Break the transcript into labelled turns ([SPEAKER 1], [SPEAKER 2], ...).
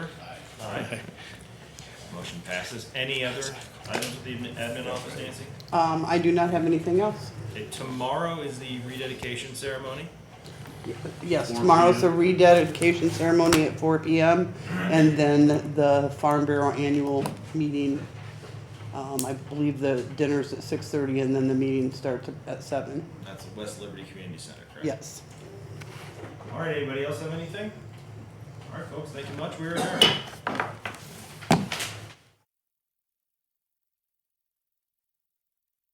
[SPEAKER 1] Motion passes. Any other items with the admin- admin office, Nancy?
[SPEAKER 2] Um, I do not have anything else.
[SPEAKER 1] Okay, Tomorrow is the rededication ceremony.
[SPEAKER 2] Yes, tomorrow's the rededication ceremony at four PM, and then the Farm Bureau annual meeting. Um, I believe the dinner's at six thirty, and then the meeting starts at seven.
[SPEAKER 1] That's at West Liberty Community Center, correct?
[SPEAKER 2] Yes.
[SPEAKER 1] All right, anybody else have anything? All right, folks, thank you much. We're adjourned.